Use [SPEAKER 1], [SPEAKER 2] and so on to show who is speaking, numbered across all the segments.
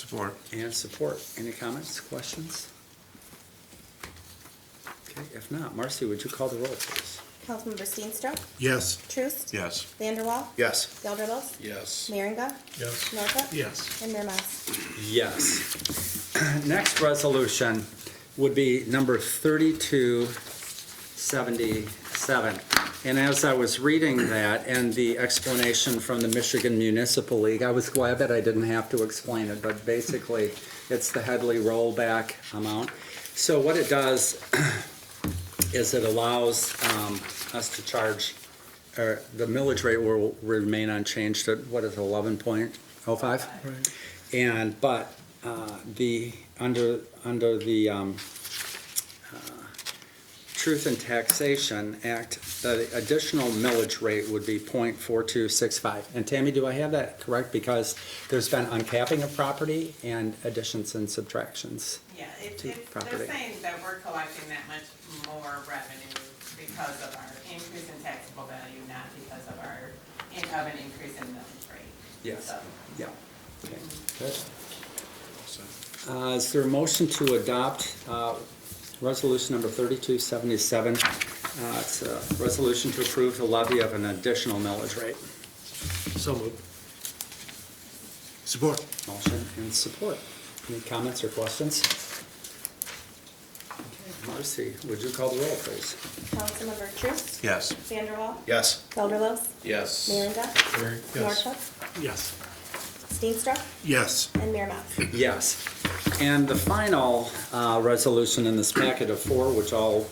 [SPEAKER 1] Support.
[SPEAKER 2] And support. Any comments, questions? Okay, if not, Marcy, would you call the roll, please?
[SPEAKER 3] Councilmember Steenstra,
[SPEAKER 1] Yes.
[SPEAKER 3] Truist,
[SPEAKER 1] Yes.
[SPEAKER 3] Vanderwall,
[SPEAKER 1] Yes.
[SPEAKER 3] Gelderlos,
[SPEAKER 4] Yes.
[SPEAKER 3] Merringa,
[SPEAKER 1] Yes.
[SPEAKER 3] Norhuck,
[SPEAKER 1] Yes.
[SPEAKER 3] and Mayor Mas.
[SPEAKER 2] Yes. Next resolution would be number 3277. And as I was reading that and the explanation from the Michigan Municipal League, I was glad that I didn't have to explain it, but basically, it's the Headley rollback amount. So what it does is it allows um, us to charge, or the millage rate will remain unchanged at, what is it, 11.05? And, but, uh, the, under, under the, um, uh, Truth and Taxation Act, the additional millage rate would be point four two six five. And Tammy, do I have that correct? Because there's been uncapping of property and additions and subtractions.
[SPEAKER 5] Yeah, it's,
[SPEAKER 2] to
[SPEAKER 5] it's,
[SPEAKER 2] property.
[SPEAKER 5] they're saying that we're collecting that much more revenue because of our increase in taxable value, not because of our, in- of an increase in millage rate.
[SPEAKER 2] Yes.
[SPEAKER 5] So,
[SPEAKER 2] Yeah. Okay, good. Uh, Is there a motion to adopt uh, Resolution Number 3277? Uh, It's a resolution to approve the levy of an additional millage rate.
[SPEAKER 1] So moved. Support.
[SPEAKER 2] Motion and support. Any comments or questions? Okay, Marcy, would you call the roll, please?
[SPEAKER 3] Councilmember Truist,
[SPEAKER 1] Yes.
[SPEAKER 3] Vanderwall,
[SPEAKER 4] Yes.
[SPEAKER 3] Gelderlos,
[SPEAKER 4] Yes.
[SPEAKER 3] Merringa, Norhuck,
[SPEAKER 1] Yes.
[SPEAKER 3] Steenstra,
[SPEAKER 1] Yes.
[SPEAKER 3] and Mayor Mas.
[SPEAKER 2] Yes. And the final uh, resolution in this packet of four, which all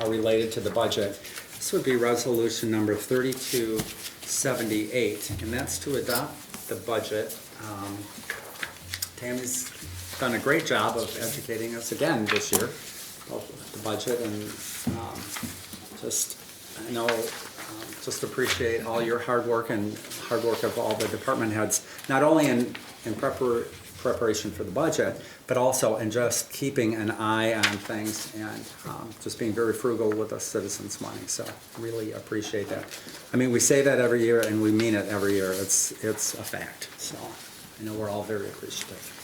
[SPEAKER 2] are related to the budget, this would be resolution number 3278, and that's to adopt the budget. Um, Tammy's done a great job of educating us again this year, both with the budget and um, just, I know, um, just appreciate all your hard work and hard work of all the department heads, not only in, in prepar- preparation for the budget, but also in just keeping an eye on things and um, just being very frugal with the citizens' money, so really appreciate that. I mean, we say that every year and we mean it every year, it's, it's a fact, so I know we're all very appreciative.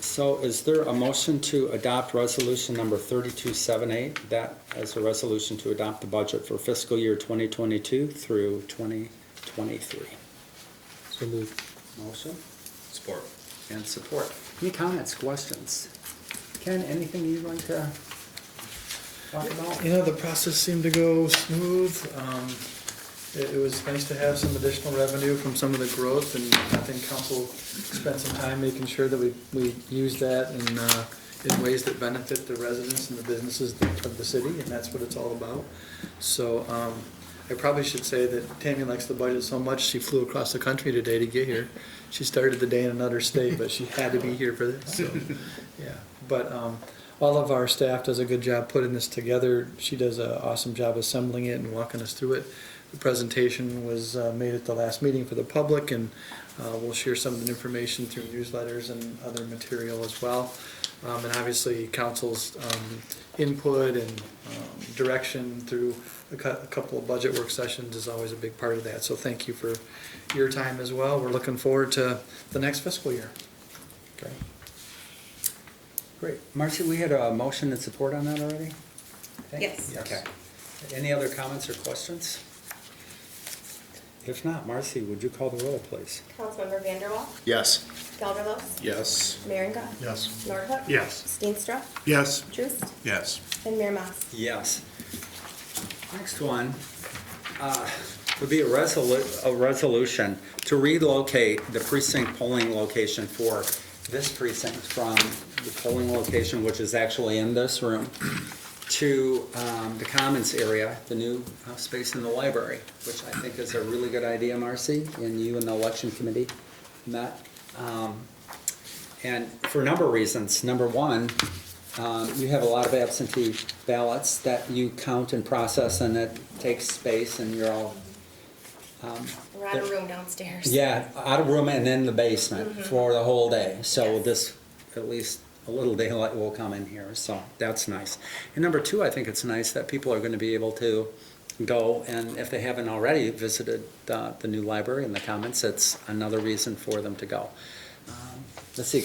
[SPEAKER 2] So is there a motion to adopt resolution number 3278? That as a resolution to adopt the budget for fiscal year 2022 through 2023.
[SPEAKER 4] So moved.
[SPEAKER 2] Motion
[SPEAKER 4] Support.
[SPEAKER 2] and support. Any comments, questions? Ken, anything you'd like to talk about?
[SPEAKER 6] You know, the process seemed to go smooth. Um, It it was nice to have some additional revenue from some of the growth, and I think council spent some time making sure that we, we use that in, uh, in ways that benefit the residents and the businesses of the city, and that's what it's all about. So um, I probably should say that Tammy likes the budget so much, she flew across the country today to get here. She started the day in another state, but she had to be here for this, so, yeah. But um, all of our staff does a good job putting this together. She does an awesome job assembling it and walking us through it. The presentation was uh, made at the last meeting for the public, and uh, we'll share some of the information through newsletters and other material as well. Um, And obviously, council's um, input and um, direction through a cou- a couple of budget work sessions is always a big part of that. So thank you for your time as well. We're looking forward to the next fiscal year.
[SPEAKER 2] Great. Great. Marcy, we had a motion and support on that already? Okay?
[SPEAKER 3] Yes.
[SPEAKER 2] Okay. Any other comments or questions? If not, Marcy, would you call the roll, please?
[SPEAKER 3] Councilmember Vanderwall,
[SPEAKER 4] Yes.
[SPEAKER 3] Gelderlos,
[SPEAKER 4] Yes.
[SPEAKER 3] Merringa,
[SPEAKER 1] Yes.
[SPEAKER 3] Norhuck,
[SPEAKER 1] Yes.
[SPEAKER 3] Steenstra,
[SPEAKER 1] Yes.
[SPEAKER 3] Truist,
[SPEAKER 1] Yes.
[SPEAKER 3] and Mayor Mas.
[SPEAKER 2] Yes. Next one uh, would be a resolu, a resolution to relocate the precinct polling location for this precinct from the polling location, which is actually in this room, to um, the commons area, the new uh, space in the library, which I think is a really good idea, Marcy, and you and the election committee met. Um, And for a number of reasons. Number one, um, you have a lot of absentee ballots that you count and process, and it takes space, and you're all, um,
[SPEAKER 3] We're out of room downstairs. Mm-hmm.
[SPEAKER 2] yeah, out of room and in the basement for the whole day. So
[SPEAKER 3] Yes.
[SPEAKER 2] this, at least a little daylight will come in here, so that's nice. And number two, I think it's nice that people are gonna be able to go, and if they haven't already visited uh, the new library and the commons, it's another reason for them to go. Um, Let's see,